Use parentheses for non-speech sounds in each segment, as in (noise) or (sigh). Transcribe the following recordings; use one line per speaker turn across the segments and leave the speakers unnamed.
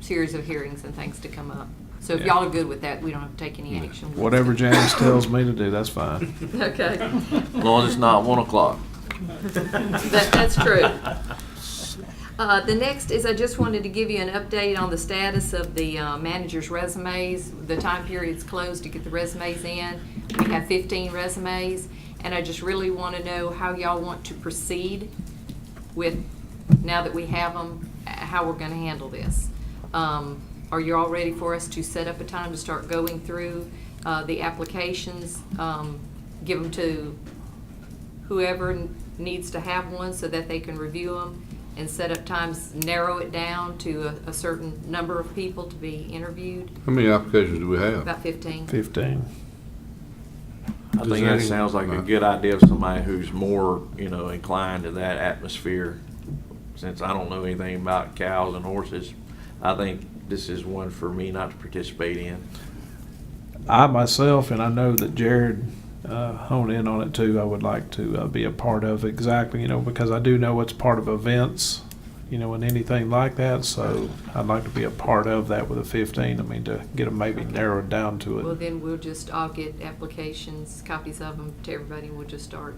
series of hearings and things to come up. So if
Yeah.
y'all are good with that, we don't have to take any action. (laughs)
Whatever Janice tells me to do, that's fine.
Okay.
As long as it's not one o'clock.
That, that's true. Uh, the next is I just wanted to give you an update on the status of the uh, manager's resumes. The time period's closed to get the resumes in. We have fifteen resumes, and I just really want to know how y'all want to proceed with, now that we have them, how we're going to handle this. Um, Are you all ready for us to set up a time to start going through uh, the applications? um, Give them to whoever n- needs to have one so that they can review them and set up times, narrow it down to a, a certain number of people to be interviewed,
How many applications do we have?
about fifteen.
Fifteen.
I
Does
think that
any-
sounds like a
Right.
good idea of somebody who's more, you know, inclined to that atmosphere. Since I don't know anything about cows and horses, I think this is one for me not to participate in.
I myself, and I know that Jared uh, honed in on it too. I would like to uh, be a part of exactly, you know, because I do know it's part of events, you know, and anything like that. So I'd like to be a part of that with a 15. I mean, to get them maybe narrowed down to it.
Well, then we'll just all get applications, copies of them to everybody, and we'll just start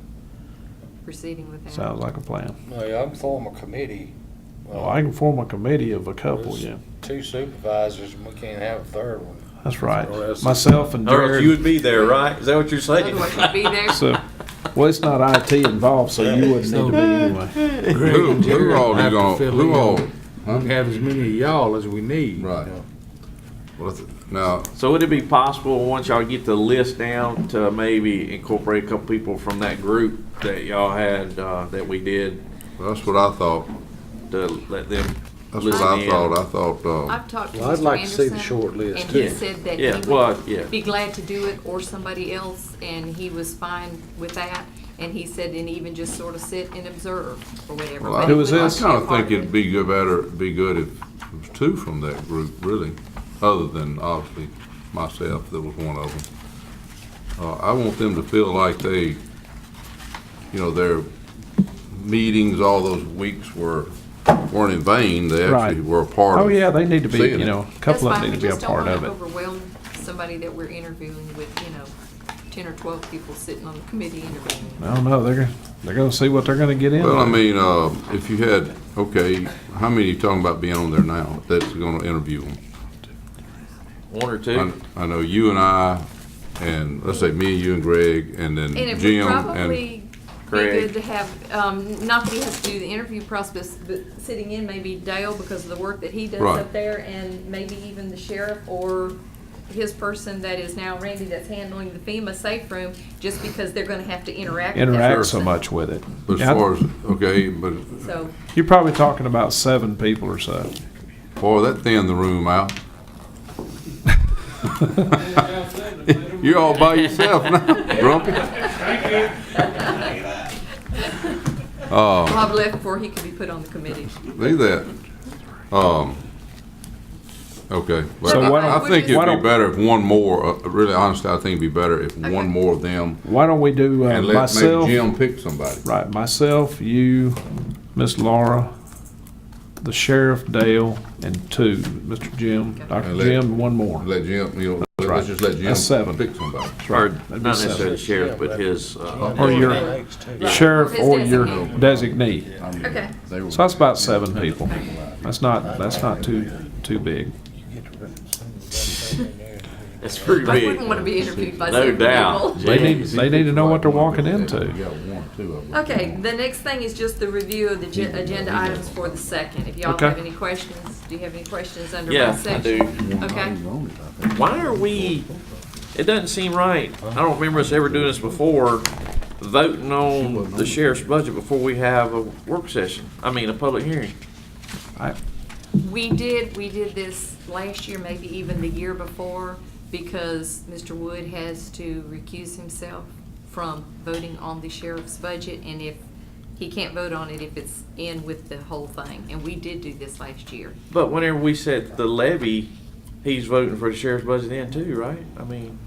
proceeding with that.
Sounds like a plan.
Well, yeah, I'm form a committee.
Oh,
Well, I can form a committee of a couple.
There's
Yeah,
Two supervisors, and we can't have a third one.
that's right.
Or else-
Myself and Jared.
be there, right? Is that what you're
Otherwise, you'd be there.
(laughs) So, well, it's not IT involved, so you wouldn't need to be anyway.
Who, who all you
have to
gonna,
fill
who
in.
all,
We have as many of y'all as we need.
right. Well, that's- Now,
So would it be possible, once y'all get the list down, to maybe incorporate a couple people from that group that y'all had, uh, that we did,
that's what I thought,
to let them
that's what
listen
I
in?
thought, I thought, uh,
I've talked to Mr.
Well, I'd like to see the
Anderson,
short list,
And he
too.
said that
Yeah,
he
well, yeah.
would be glad to do it or somebody else, and he was fine with that. And he said, and even just sort of sit and observe or whatever.
well,
but
I, I
he
Who was
would like
this?
to be a
kinda
part
think
of
it'd
it.
be good, better, be good if it was two from that group, really, other than obviously myself, that was one of them. Uh, I want them to feel like they, you know, their meetings all those weeks were, weren't in vain, they actually
Right.
were a part of.
Oh, yeah, they need to be,
Seeing
you
it.
know, a
That's
couple of
fine,
them
we
need to be a
just don't
part
want
of
to
it.
overwhelm somebody that we're interviewing with, you know, ten or twelve people sitting on the committee interviewing.
I don't know, they're, gonna- they're gonna see what they're gonna get in.
Well, I mean, uh, if you had, okay, how many you talking about being on there now that's gonna interview them?
One or
I,
two?
I know you and I, and let's say me, you and Greg, and then
And it would
Jim,
probably
and,
be
Craig.
good to have, um, not that he has to do the interview process, but sitting in maybe Dale because of the work that he does
Right.
up there and maybe even the sheriff or his person that is now Randy that's handling the FEMA safe room, just because they're gonna have to interact with that
Interact so
person.
much with it.
but as
Yeah, I-
far as, okay, but,
So,
You're probably talking about seven people or so.
boy, that thinned the room out. (laughs) You're all by yourself now, (laughs) grumpy.
Bob left before he could be put on the committee.
Leave that. Um, okay, but
So why
I, I
don't-
think
why
it'd be
don't-
better if one more, uh, really honestly, I think it'd be better if one more of them
Why don't we do uh,
And let
myself?
maybe Jim pick somebody.
Right, myself, you, Miss Laura, the sheriff, Dale, and two, Mr. Jim, Dr.
And let-
Jim, one more.
Let Jim, you know,
right.
let's just let
That's
Jim
seven.
pick somebody.
Or
That'd be
not
seven.
necessarily sheriff, but his, uh,
Or your
Thanks, too.
sheriff
His
or your
designee.
designee.
Okay.
So that's about seven people. That's not, that's not too, too big.
(laughs) it's pretty
I
big.
wouldn't wanna be interviewed by
No
seven
doubt.
people.
They need, they need to know what they're walking into.
Okay, the next thing is just the review of the gen- agenda items for the second. If y'all
Okay.
have any questions, do you have any questions under
Yeah,
my
I
section?
do.
Okay.
Why are we, it doesn't seem right, I don't remember us ever doing this before, voting on the sheriff's budget before we have a work session, I mean, a public hearing.
I-
We did, we did this last year, maybe even the year before, because Mr. Wood has to recuse himself from voting on the sheriff's budget, and if, he can't vote on it if it's in with the whole thing, and we did do this last year.
But whenever we said the levy, he's voting for the sheriff's budget then too, right? I mean,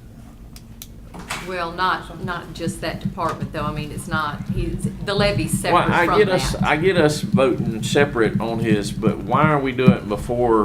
Well, not, not just that department, though, I mean, it's not, he's, the levy's
why,
separate
I
from
get us,
that.
I get us voting separate on his, but why are we doing it before